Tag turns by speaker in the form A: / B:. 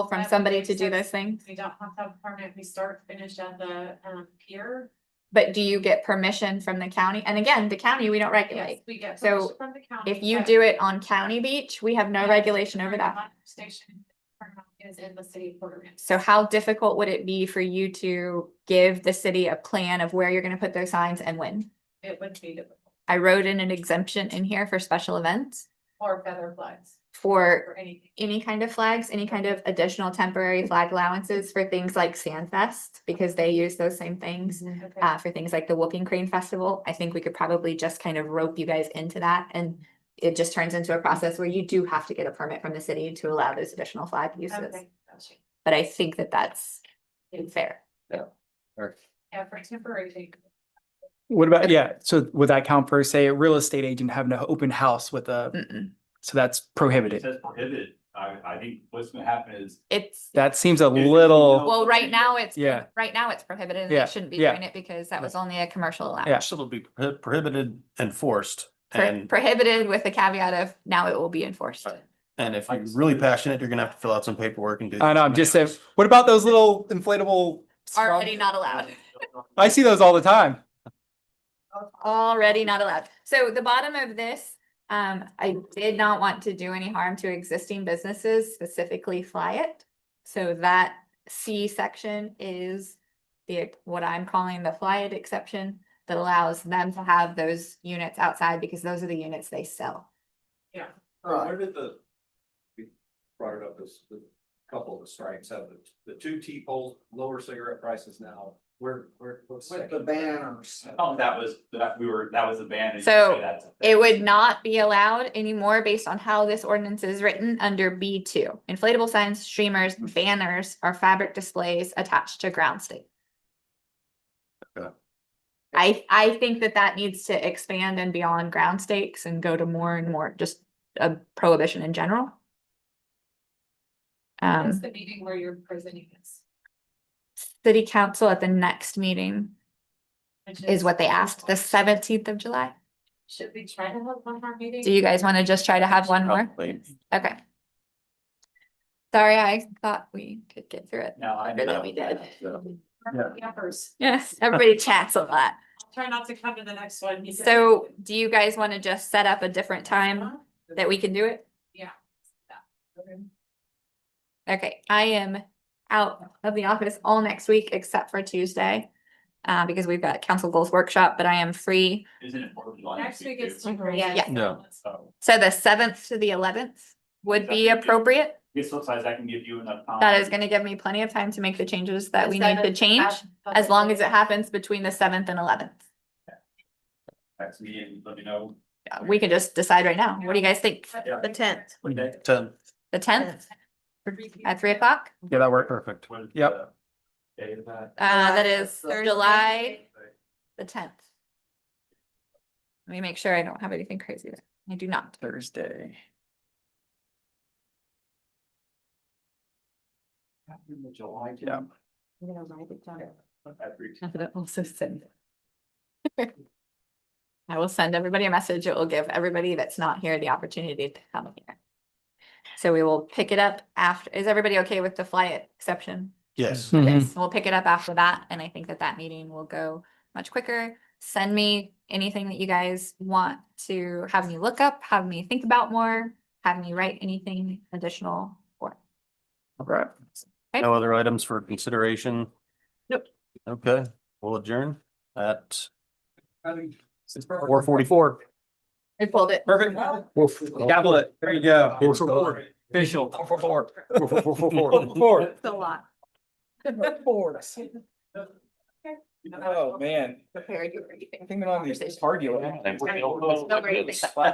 A: from somebody to do those things?
B: We don't have to have a permit, we start, finish at the um pier.
A: But do you get permission from the county? And again, the county, we don't
B: Yes,
A: regulate.
B: we get
A: So
B: permission from the county.
A: If you
B: but
A: do it on county beach, we have no
B: Yeah.
A: regulation over that.
B: Vermont Station Vermont is in the city of Port Orchard.
A: So how difficult would it be for you to give the city a plan of where you're gonna put those signs and when?
B: It would be difficult,
A: I wrote in an exemption in here for special events
B: or feather flags,
A: for
B: or anything.
A: any kind of flags, any kind of additional temporary flag allowances for things like Sand Fest, because they use those same things.
B: Okay.
A: Uh, for things like the Whooping Crane Festival, I think we could probably just kind of rope you guys into that and it just turns into a process where you do have to get a permit from the city to allow those additional flag uses.
B: Okay, gotcha.
A: But I think that that's
B: Yeah.
A: fair.
B: Yeah, for temporary. thing.
C: What about, yeah, so would that count for, say, a real estate agent having an open house with a,
A: Mm-mm.
C: so that's
D: It
C: prohibited?
D: says prohibited. I, I think what's gonna happen is
A: It's,
C: That seems a
D: If you know-
C: little,
A: well, right now it's,
C: Oh. Yeah.
A: right now it's prohibited and
C: Yeah,
A: they shouldn't be
C: yeah.
A: doing it because that was only a commercial allowance.
C: Yeah.
E: Actually, it'll be prohi- prohibited, enforced,
A: Pro-
E: and,
A: Prohibited with the caveat of now it will be enforced.
E: Right. and if you're really passionate, you're gonna have to fill out some paperwork and do.
C: I know, I'm just saying, what about those little inflatable?
A: Already not allowed.
C: I see those all the time.
A: Already not allowed. So the bottom of this, um, I did not want to do any harm to existing businesses, specifically fly it. So that C section is the, what I'm calling the fly it exception that allows them to have those units outside because those are the units they sell.
B: Yeah.
F: Uh, Where did the? We brought it up as the couple of the strikes of the, the two T poles, lower cigarette prices now, where, where? With the banners.
D: Oh, that was, that we were, that was the ban. and you
A: So,
D: say that's a
A: It would not be allowed anymore based on how this ordinance is written under B two. Inflatable signs, streamers, banners, or fabric displays attached to ground state.
E: Okay.
A: I, I think that that needs to expand and beyond ground stakes and go to more and more, just a prohibition in general.
B: That's
A: Um,
B: the meeting where you're presenting this.
A: city council at the next meeting
B: which
A: is what they asked, the seventeenth of July.
B: Should we try to have one more meeting?
A: Do you guys want to just try to have one more?
E: Probably.
A: Okay. Sorry, I thought we could get through it.
D: No, I.
A: Better than
E: No.
A: we did.
E: Yeah.
B: Yuppers.
A: Yes, everybody chats a lot.
B: Try not to come to the next one. he said.
A: So do you guys want to just set up a different time that we can do it? um, Okay, I am out of the office all next week except for Tuesday. Uh, because we've got council goals workshop, but I am free.
D: Isn't it Fourth of July
B: Next week is.
D: too?
B: temporary.
A: Yeah.
B: Yes.
E: No.
D: So,
A: So the seventh to the eleventh would be
D: Exactly.
A: appropriate.
D: I guess sometimes I can give you enough time.
A: That is going to give me plenty of time to make the changes that we need to
B: Seventh,
A: change,
B: uh,
A: as long as it happens between the seventh and eleventh.
D: Next meeting, let me know.
A: We can just decide right now. What do you guys think?
D: Yeah.
B: The tenth.
D: What day?
E: Ten,
A: The tenth at three o'clock?
C: Yeah, that worked.
E: perfect.
D: What is
C: Yep.
D: the Day of that.
A: Uh, that is July the tenth. Let me make sure I don't have anything crazy there. I do not.
C: Thursday.
D: Happened in July.
C: Yeah.
D: Every-
A: also send. I will send everybody a message. It will give everybody that's not here the opportunity to come here. So we will pick it up after, is everybody okay with the fly it exception?
E: Yes,
C: Mm-hmm.
A: Yes, we'll pick it up after that, and I think that that meeting will go much quicker. Send me anything that you guys want to have me look up, have me think about more, have me write anything additional for.
C: All right.
E: no other items for consideration?
C: Nope.
E: Okay, we'll adjourn at four forty-four.
A: I pulled it.
C: Perfect. Gavel it. There you go. Official. Four, four, four. Four.
A: It's a lot.
C: Oh, man.
A: Prepared you for anything.
C: Oh, Thinking on these, it's hard, you know.
A: No great thing.